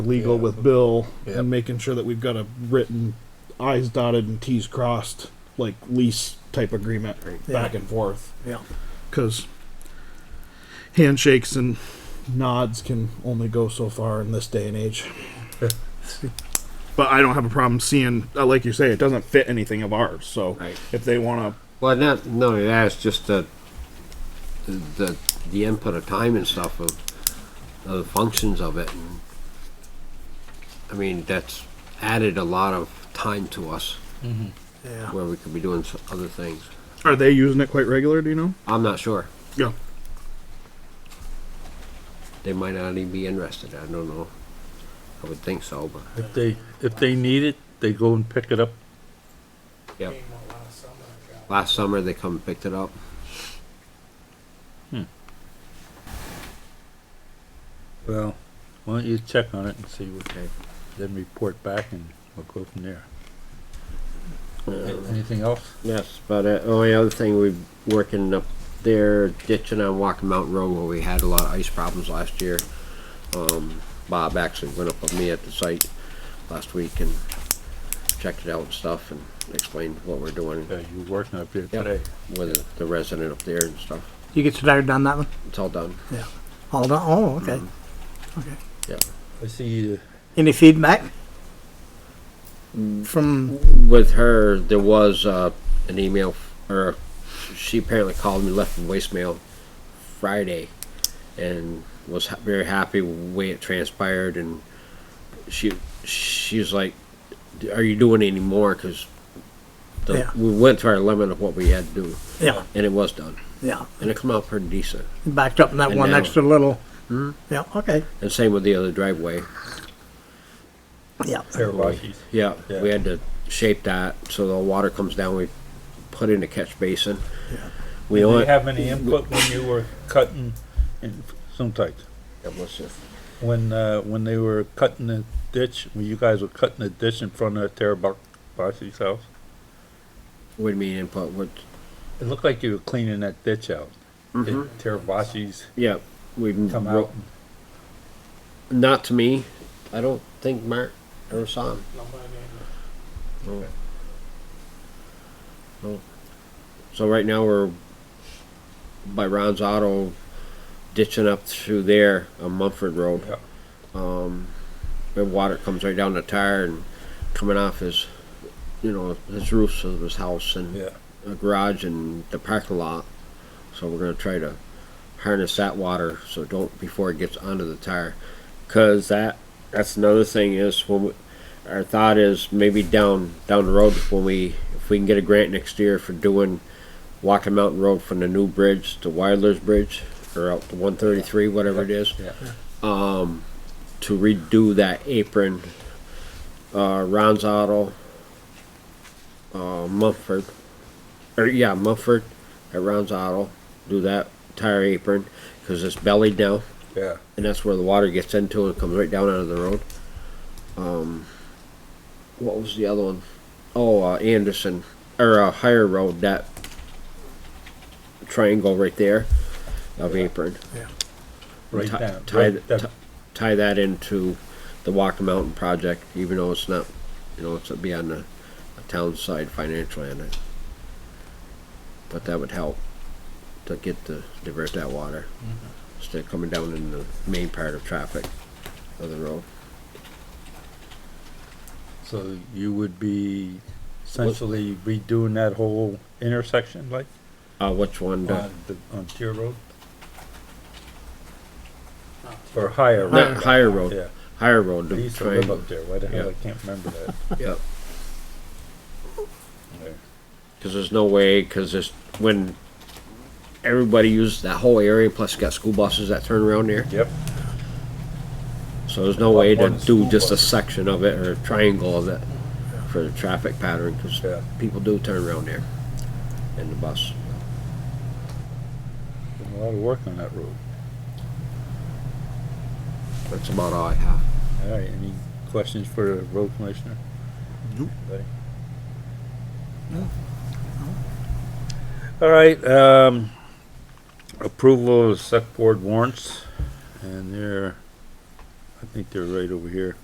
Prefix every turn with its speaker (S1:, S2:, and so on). S1: legal with Bill
S2: Yep.
S1: and making sure that we've got a written I's dotted and T's crossed, like lease type agreement back and forth.
S3: Yeah.
S1: Because handshakes and nods can only go so far in this day and age. but I don't have a problem seeing, uh, like you say, it doesn't fit anything of ours. So
S2: Right.
S1: if they want to,
S2: Well, not, no, that's just the, the, the input of time and stuff of, of the functions of it. and I mean, that's added a lot of time to us
S3: Yeah.
S2: where we could be doing s- other things.
S1: are they using it quite regular? Do you know?
S2: I'm not sure.
S1: Yeah.
S2: They might not even be interested. I don't know. I would think so, but
S4: If they, if they need it, they go and pick it up.
S2: yeah. Last summer they come and picked it up.
S4: Well. Why don't you check on it and see what they, then report back and we'll go from there. Anything else?
S2: Yes, but uh, only other thing we working up there ditching on Walking Mountain Road where we had a lot of ice problems last year. Um, Bob actually went up with me at the site last week and checked it out and stuff and explained what we're doing
S4: Yeah, you working up there
S2: Yep.
S4: today.
S2: with the resident up there and stuff.
S3: You get started on that one?
S2: It's all done.
S3: All done? Oh, okay.
S4: I see, uh,
S3: Any feedback? From,
S2: With her, there was uh, an email, f- or she apparently called me, left a voicemail Friday, and was ha- very happy with the way it transpired. And she she was like, "Are you doing any more?" Because
S3: Yeah.
S2: we went to our limit of what we had to do,
S3: yeah,
S2: and it was done,
S3: yeah.
S2: and it came out pretty decent.
S3: Backed up in that
S2: And
S3: one
S2: now-
S3: extra little. Yeah, okay.
S2: And same with the other driveway.
S3: Yeah.
S4: Paravasis.
S2: Yeah, we
S4: Yeah.
S2: had to shape that so the water comes down. We put in a catch basin. We
S4: Did
S2: only
S4: you have any input when you were cutting, in some type?
S2: It was just-
S4: When, uh, when they were cutting the ditch, when you guys were cutting the ditch in front of Terabasi's house?
S2: What do you mean input? What?
S4: It looked like you were cleaning that ditch out.
S2: Mhm.
S4: Terabasi's
S2: Yeah, we
S4: come out.
S2: Not to me. I don't think Mark ever saw him. No. No. So right now we're by Ron's Auto, ditching up through there on Mumford Road.
S4: Yeah.
S2: Um, the water comes right down the tire and coming off his, you know, his roofs of his house and
S4: Yeah.
S2: a garage and the parking lot. So we're gonna try to harness that water so don't before it gets onto the tire. Cause that that's another thing is when we, our thought is maybe down down the road when we if we can get a grant next year for doing Walking Mountain Road from the new bridge to Wilder's Bridge or out to 133 whatever it is um,
S4: Yeah.
S2: to redo that apron. Uh, Ron's Auto, uh, Mumford, or yeah, Mumford at Ron's Auto, do that tire apron because it's bellied down,
S4: Yeah.
S2: and that's where the water gets into and comes right down out of the road. Um, what was the other one? Oh, uh, Anderson or uh, Higher Road that triangle right there of apron
S4: Right
S2: Ti-
S4: down.
S2: tie
S4: Right
S2: the-
S4: down.
S2: ti- tie that into the Walker Mountain project, even though it's not, you know, it's be on the the town side financially on it. But that would help to get the, divert that water. Instead of coming down in the main part of traffic of the road.
S4: So you would be essentially redoing that whole intersection like
S2: Uh, which one? the-
S4: on the, on Tier Road? Or higher,
S2: Not
S4: right?
S2: higher road,
S4: Yeah,
S2: higher road,
S4: I
S2: the
S4: used to live
S2: triangle,
S4: up there, why the hell,
S2: Yeah.
S4: I can't remember that.
S2: yep.
S4: There.
S2: Cause there's no way, cause there's, when everybody uses that whole area, plus you got school buses that turn around there.
S4: Yep,
S2: So there's no way to
S4: One
S2: do
S4: school
S2: just a
S4: bus.
S2: section of it or a triangle of it for the traffic pattern, because
S4: yeah,
S2: people do turn around there in the bus.
S4: Did a lot of work on that road.
S2: That's about all I have.
S4: All right, any questions for the road commissioner? Nope. All right, um, approval of select board warrants, and they're, I think they're right over here.